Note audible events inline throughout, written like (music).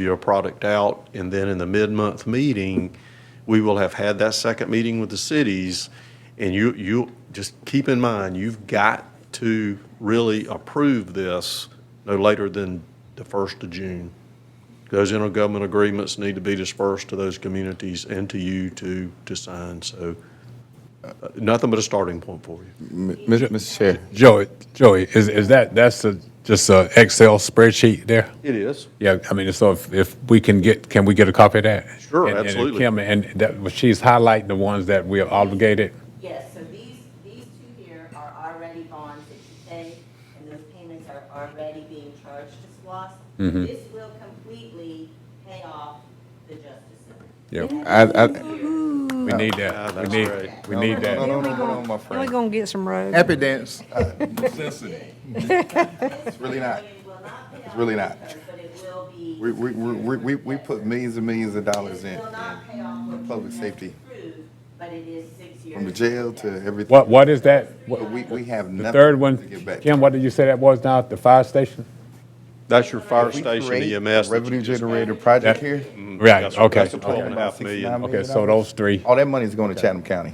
your product out, and then in the mid-month meeting, we will have had that second meeting with the cities, and you, you, just keep in mind, you've got to really approve this no later than the first of June. Those intergovernmental agreements need to be dispersed to those communities and to you to, to sign, so uh, nothing but a starting point for you. Mr. Chair. Joey, Joey, is, is that, that's a, just a Excel spreadsheet there? It is. Yeah, I mean, so if, if we can get, can we get a copy of that? Sure, And- and absolutely. Kim, and that, well, she's highlighting the ones that we are obligated. Yes, so these, these two here are already bonds that you pay, and those payments are already being charged to SLOSS. This will completely pay off the Justice Center. Yeah, I, I, we need that, we Ah, that's need, great. we need that. Then hold on, we my gonna, then we friend. gonna get some roads. Happy dance. It's uh, really not. It's really not. But it will be. We, we, we, we- we, we put millions and millions of dollars in. It will not pay off what you Public have safety. approved, But it is six years. From the jail to everything. What, what is that? What- But we, we have The nothing. third to one, give back. Kim, what did you say that was now, the fire station? That's your fire If we station E create a EMS. that you Revenue just- generator project That- here. Mm, Right, That's- okay, That's a twelve okay. and a half Sixty-nine million. million. Okay, so those three, All that money's going to Chatham County.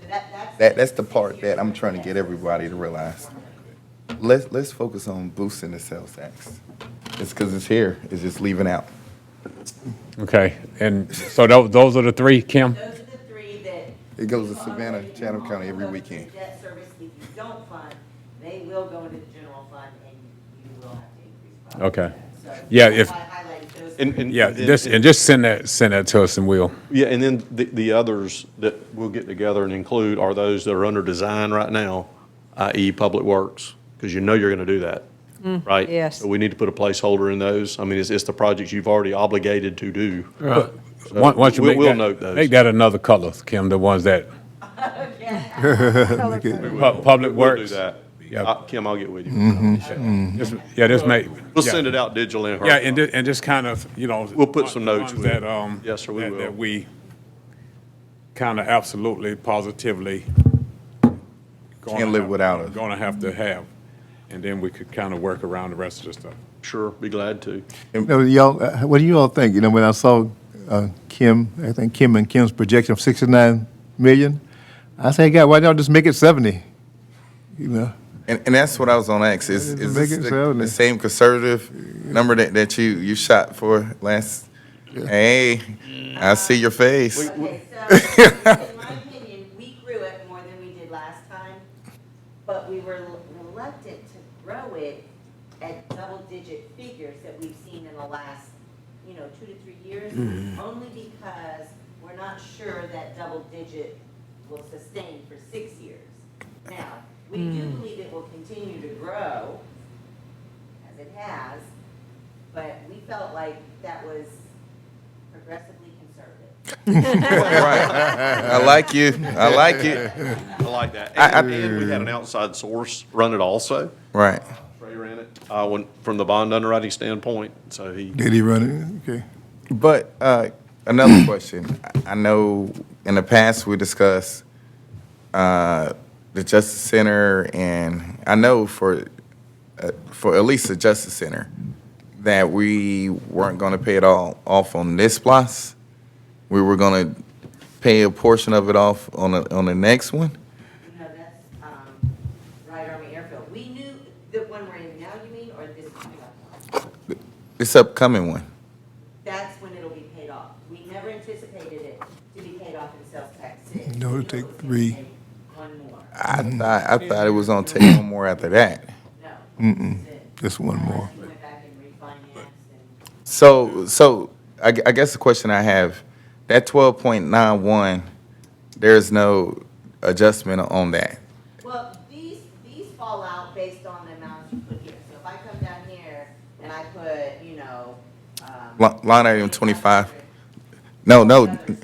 So that- that's- That, that's the part that I'm trying to get everybody to realize. Let's, let's focus on boosting the sales tax. It's because it's here, it's just leaving out. okay. And so tho- those are the three, Kim? Those are the three that. It goes to people Savannah, already Chatham fund. County every Those are the weekend. Debt service, if you don't fund, they will go into the general fund and you will have to increase. property Okay. tax. So Yeah, that's if- why I highlight those And- three. and- Yeah, and then- just, and just send that, send that to us and we'll. Yeah, and then the, the others that we'll get together and include are those that are under design right now, i.e. Public Works, because you know you're going to do that, right? yes. So we need to put a placeholder in those. I mean, it's, it's the projects you've already obligated to do. Once once you Uh, we'll- make we'll that- note those. Make that another color, Kim, the ones that, (laughs) Colorful. Pu- Public We'll do Works. that. Yeah. Uh, Kim, I'll get with you. Mm-hmm. Just- Yeah, just make. We'll yeah. send it out digitally. and Yeah, hard and copy. just, and just kind of, you know. We'll put some notes ones with it. That, um. Yes, sir, we that- That will. we kind of absolutely, positively. gonna Can't live have- without us. Gonna have to have, and then we could kind of work around the rest of the stuff. Sure, be glad to. No, y'all, uh, what do you all think? You know, when I saw uh, Kim, I think Kim and Kim's projection of 69 million, I say, God, why don't y'all just make it 70? You know, And, and that's what I was on X. Is, It's is big this the, itself, the yeah. same conservative number that, that you, you shot for last? Hey, I see your face. Okay, so, in my opinion, we grew it more than we did last time, but we were reluctant to grow it at double-digit figures that we've seen in the last, you know, two to three years, only because we're not sure that double-digit will sustain for six years. Now, we do believe it will continue to grow, as it has, but we felt like that was progressively conservative. I like you. I like you. I like that. I- I- And, and we had an outside source run it also. Right. Trey ran it, uh, when, from the bond underwriting standpoint, so he. did he run it? Okay. But uh, another question. I- I know in the past we discussed uh, the Justice Center, and I know for uh, for at least the Justice Center that we weren't going to pay it all off on this plus. We were going to pay a portion of it off on the, on the next one. No, that's, um, Wright Army Airfield. We knew the one we're in now, you mean, or this is coming up? This upcoming one. That's when it'll be paid off. We never anticipated it to be paid off in sales tax six. We No, it'll knew it take was gonna three. take One more, I thought I thought it was going to take one more after that. no. Mm-mm, Just one more. Unless you went back and refinanced So, so I, gu- I guess the question I have, that twelve point nine one, there's no adjustment on that. and, well, these, these fall out based on the amounts you put here. So if I come down here and I put, you know, um. Li- Line item twenty-five. No, no, Others change.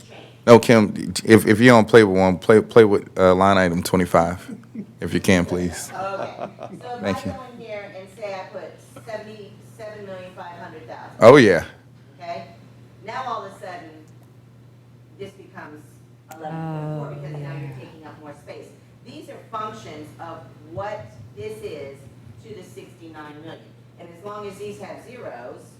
no, Kim. If if you don't play with one, play play with uh, line item twenty-five, if you can, please. Okay, so Thank if I you. go in here and say I put seventy-seven million five hundred thousand, Oh yeah, okay? Now all of a sudden, this becomes eleven point four because now you're taking up more space. These are functions of what this is to the sixty-nine million. And as long as these have zeros,